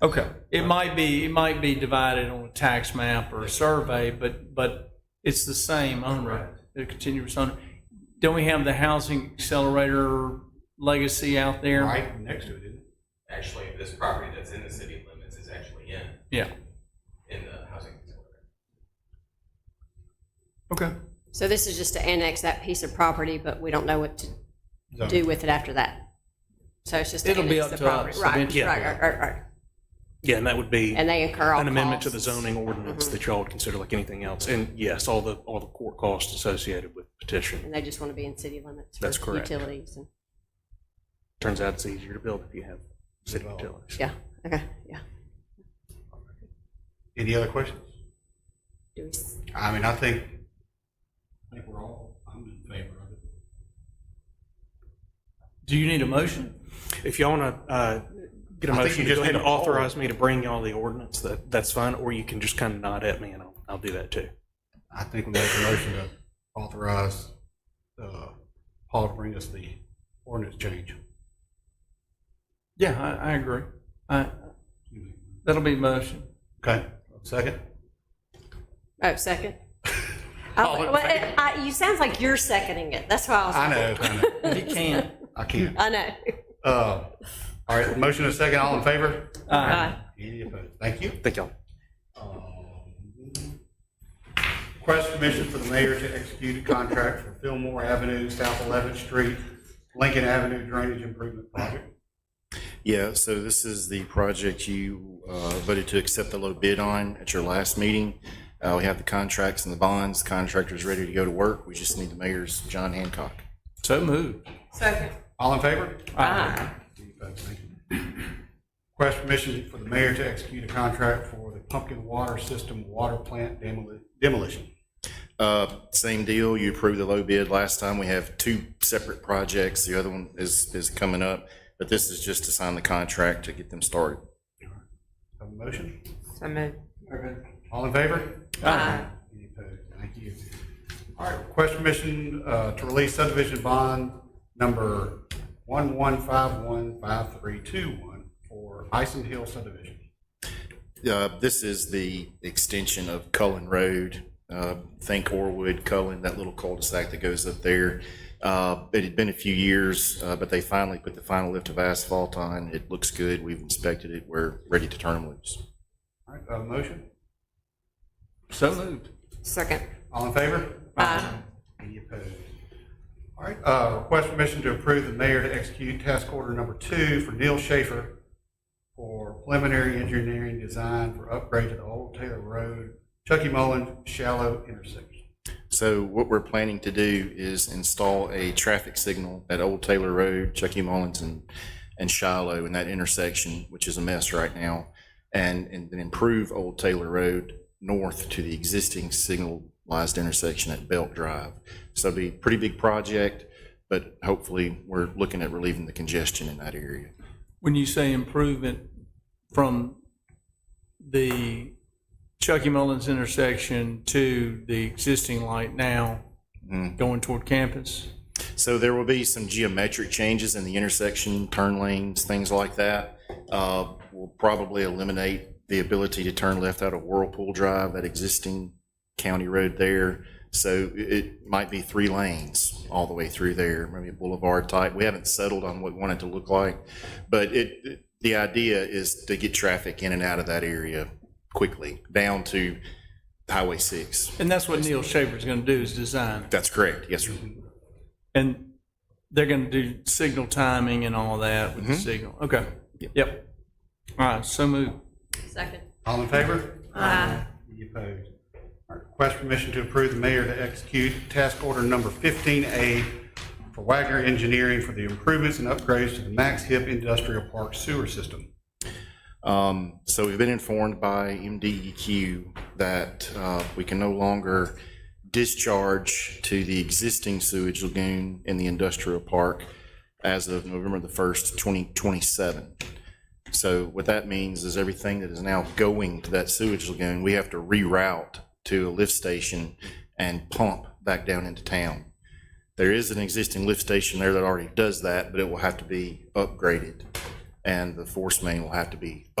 Okay, it might be, it might be divided on a tax map or a survey, but, but it's the same owner, the continuous owner. Don't we have the housing accelerator legacy out there? right next to it, isn't it? Actually, this property that's in the city limits is actually in, Yeah, in the housing authority. okay. So this is just to annex that piece of property, but we don't know what to Zone. do with it after that. So it's just to It'll be annex up the to us property. Right, eventually. right, right, right, right. Yeah, and that would be And they incur all an amendment to the costs. Mm-hmm. zoning ordinance that y'all would consider like anything else. And yes, all the, all the court costs associated with petition. And they just want to be in city limits That's for correct. utilities and, Turns out it's easier to build if you have city utilities. yeah, okay, yeah. Any other questions? Do we s- I mean, I think. I think we're all, I'm in favor of it. Do you need a motion? If y'all want to get a I think motion you to just go ahead need and to call. authorize me to bring y'all the ordinance, that, that's fine. Or you can just kind of nod at me and I'll, I'll do that too. I think we make a motion to authorize, uh, Paul to bring us the ordinance change. Yeah, I, I agree. I, that'll be a motion. Okay, second? Oh, second? Oh, well, it- I- You sounds like you're seconding it. That's why I was. I know, I know, He can. I can't. I know. Uh, all right, motion and second, all in favor? Aye. Uh, Any opposed? Thank you. Thank y'all. Request permission for the mayor to execute a contract for Fillmore Avenue, South 11th Street, Lincoln Avenue Drainage Improvement Project. Yeah, so this is the project you uh, voted to accept the low bid on at your last meeting. Uh, We have the contracts and the bonds, contractor's ready to go to work, we just need the mayor's John Hancock. So moved. All in favor? Aye. Any opposed? Thank you. Request permission for the mayor to execute a contract for the pumpkin water system water plant demoli- demolition. Uh, Same deal, you approved the low bid last time, we have two separate projects, the other one is, is coming up, but this is just to sign the contract to get them started. Have a motion? So moved. All in favor? Aye. Any opposed? Thank you. All right, request permission uh, to release subdivision bond number 11515321 for Ison Hill subdivision. Uh, This is the extension of Cullen Road. Uh, Think Orwood, Cullen, that little cul-de-sac that goes up there. Uh, It had been a few years, uh, but they finally put the final lift of asphalt on. It looks good. We've inspected it. We're ready to turn loose. All right, uh, motion? So moved. Second. Uh, All in favor? Aye. Any opposed? All right, uh, request permission to approve the mayor to execute task order number two for Neil Schaefer for preliminary engineering design for upgrade to the Old Taylor Road, Chucky Mullen shallow intersection. So what we're planning to do is install a traffic signal at Old Taylor Road, Chucky Mullins and, and Shiloh in that intersection, which is a mess right now, and, and then improve Old Taylor Road north to the existing signalized intersection at Belt Drive. So it'll be a pretty big project, but hopefully we're looking at relieving the congestion in that area. When you say improvement from the Chucky Mullins intersection to the existing light now going toward campus? So there will be some geometric changes in the intersection, turn lanes, things like that. Uh, We'll probably eliminate the ability to turn left out of Whirlpool Drive, that existing county road there. So it- it might be three lanes all the way through there, maybe a boulevard type. We haven't settled on what we want it to look like. But it, it- the idea is to get traffic in and out of that area quickly, down to Highway 6. And that's what Neil Schaefer's going to do is design. it. That's correct, yes, sir. And they're going to do signal timing and all that with the signal. Okay. Yep. All right, so moved. Second. All in favor? Aye. Any opposed? All right, request permission to approve the mayor to execute task order number fifteen A for Wagner Engineering for the improvements and upgrades to the Max Hip Industrial Park Sewer System. Um, so we've been informed by MDEQ that uh, we can no longer discharge to the existing sewage lagoon in the industrial park as of November the 1st, 2027. So what that means is everything that is now going to that sewage lagoon, we have to reroute to a lift station and pump back down into town. There is an existing lift station there that already does that, but it will have to be upgraded, and the force main will have to be upgraded.